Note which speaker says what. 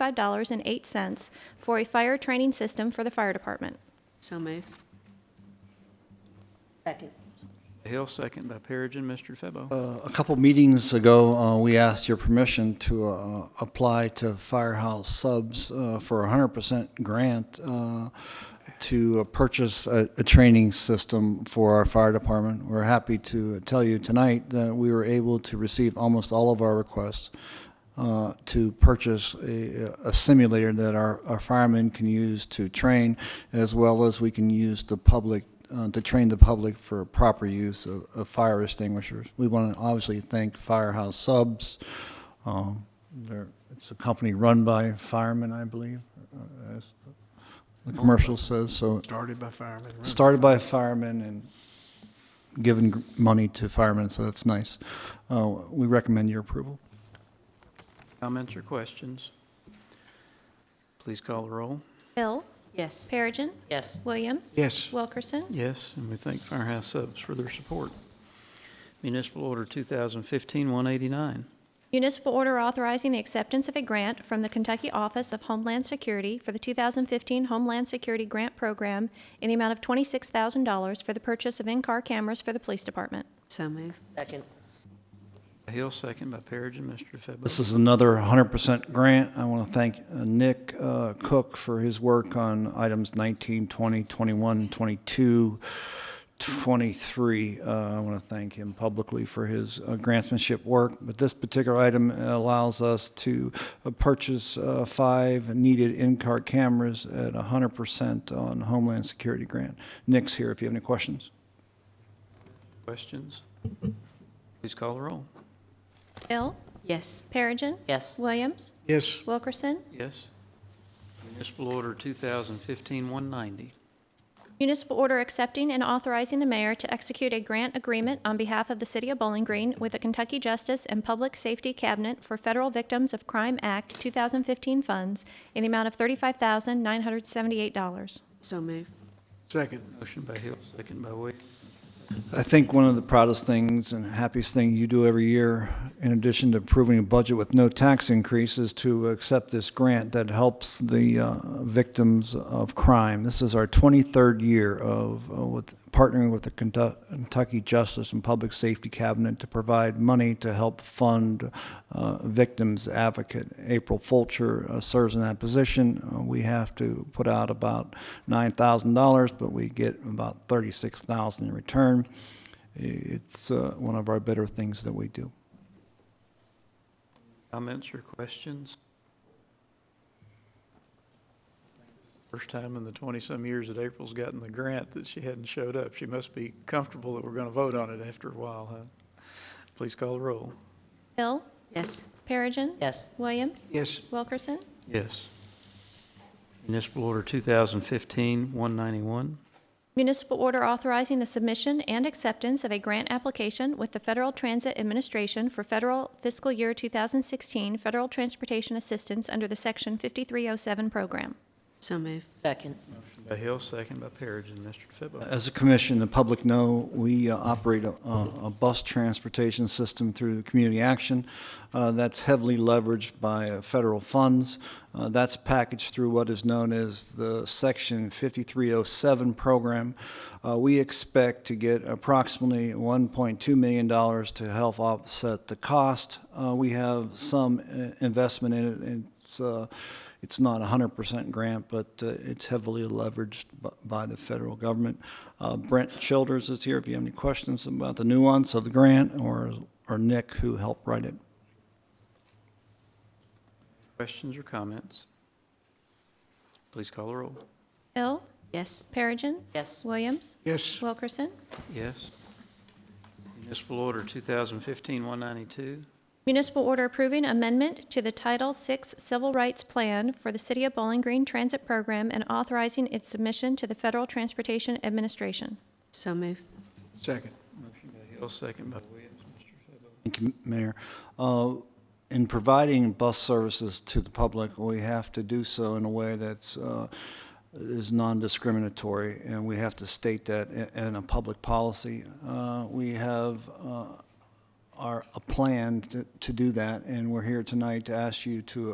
Speaker 1: $1,145.08 for a fire training system for the fire department.
Speaker 2: So moved. Second.
Speaker 3: Hill, second by Perigin. Mr. DeFebo.
Speaker 4: Uh, A couple meetings ago, uh, we asked your permission to uh, apply to Firehouse Subs uh, for a hundred percent grant uh, to uh, purchase a, a training system for our fire department. We're happy to tell you tonight that we were able to receive almost all of our requests uh, to purchase a, a simulator that our, our firemen can use to train, as well as we can use the public, uh, to train the public for proper use of, of fire extinguishers. We want to obviously thank Firehouse Subs. Um, They're, it's a company run by firemen, I believe, uh, as the commercial says, so
Speaker 3: Started by fireman. run.
Speaker 4: started by firemen and given gr- money to firemen, so that's nice. Uh, We recommend your approval.
Speaker 3: Comments or questions? Please call the roll.
Speaker 1: Hill,
Speaker 2: Yes.
Speaker 1: Perigin,
Speaker 2: Yes.
Speaker 1: Williams.
Speaker 5: Yes.
Speaker 1: Wilkerson.
Speaker 3: Yes, and we thank Firehouse Subs for their support. Municipal Order 2015-189.
Speaker 1: Municipal order authorizing the acceptance of a grant from the Kentucky Office of Homeland Security for the 2015 Homeland Security Grant Program in the amount of $26,000 for the purchase of in-car cameras for the police department.
Speaker 2: So moved. Second.
Speaker 3: Hill, second by Perigin. Mr. DeFebo.
Speaker 4: This is another 100% grant. I want to thank uh, Nick uh, Cook for his work on items 19, 20, 21, 22, 23. Uh, I want to thank him publicly for his uh, grantsmanship work. But this particular item allows us to uh, purchase uh, five needed in-car cameras at 100% on Homeland Security grant. Nick's here if you have any questions.
Speaker 3: Questions? Please call the roll.
Speaker 1: Hill,
Speaker 2: Yes.
Speaker 1: Perigin,
Speaker 2: Yes.
Speaker 1: Williams,
Speaker 5: Yes.
Speaker 1: Wilkerson.
Speaker 3: Yes. Municipal Order 2015-190.
Speaker 1: Municipal order accepting and authorizing the mayor to execute a grant agreement on behalf of the city of Bowling Green with the Kentucky Justice and Public Safety Cabinet for Federal Victims of Crime Act 2015 funds in the amount of $35,978.
Speaker 2: So moved.
Speaker 5: Second.
Speaker 3: Motion by Hill, second by Williams.
Speaker 4: I think one of the proudest things and happiest thing you do every year, in addition to approving a budget with no tax increase, is to accept this grant that helps the uh, victims of crime. This is our 23rd year of uh, with partnering with the Kentu- Kentucky Justice and Public Safety Cabinet to provide money to help fund uh, victims advocate. April Fulcher uh, serves in that position. Uh, We have to put out about $9,000, but we get about $36,000 in return. It's uh, one of our better things that we do.
Speaker 3: Comments or questions? First time in the 20-some years that April's gotten the grant that she hadn't showed up. She must be comfortable that we're going to vote on it after a while, huh? Please call the roll.
Speaker 1: Hill,
Speaker 2: Yes.
Speaker 1: Perigin,
Speaker 2: Yes.
Speaker 1: Williams,
Speaker 5: Yes.
Speaker 1: Wilkerson.
Speaker 3: Yes. Municipal Order 2015-191.
Speaker 1: Municipal order authorizing the submission and acceptance of a grant application with the Federal Transit Administration for federal fiscal year 2016 federal transportation assistance under the Section 5307 program.
Speaker 2: So moved. Second.
Speaker 3: By Hill, second by Perigin. Mr. DeFebo.
Speaker 4: As a commission, the public know, we uh, operate a, a a bus transportation system through community action uh, that's heavily leveraged by uh, federal funds. Uh, That's packaged through what is known as the Section 5307 program. Uh, We expect to get approximately $1.2 million to help offset the cost. Uh, We have some uh, investment in it, and it's, uh, it's not a hundred percent grant, but uh, it's heavily leveraged b- by the federal government. Uh, Brent Childers is here if you have any questions about the nuance of the grant, or, or Nick, who helped write it.
Speaker 3: Questions or comments? Please call the roll.
Speaker 1: Hill,
Speaker 2: Yes.
Speaker 1: Perigin,
Speaker 2: Yes.
Speaker 1: Williams,
Speaker 5: Yes.
Speaker 1: Wilkerson.
Speaker 3: Yes. Municipal Order 2015-192.
Speaker 1: Municipal order approving amendment to the Title VI Civil Rights Plan for the City of Bowling Green Transit Program and authorizing its submission to the Federal Transportation Administration.
Speaker 2: So moved.
Speaker 5: Second.
Speaker 3: Motion by Hill, second by Williams. Mr. DeFebo.
Speaker 4: Thank you, Mayor. Uh, In providing bus services to the public, we have to do so in a way that's, uh, is non-discriminatory, and we have to state that i- in a public policy. Uh, We have uh, our, a plan to- to do that, and we're here tonight to ask you to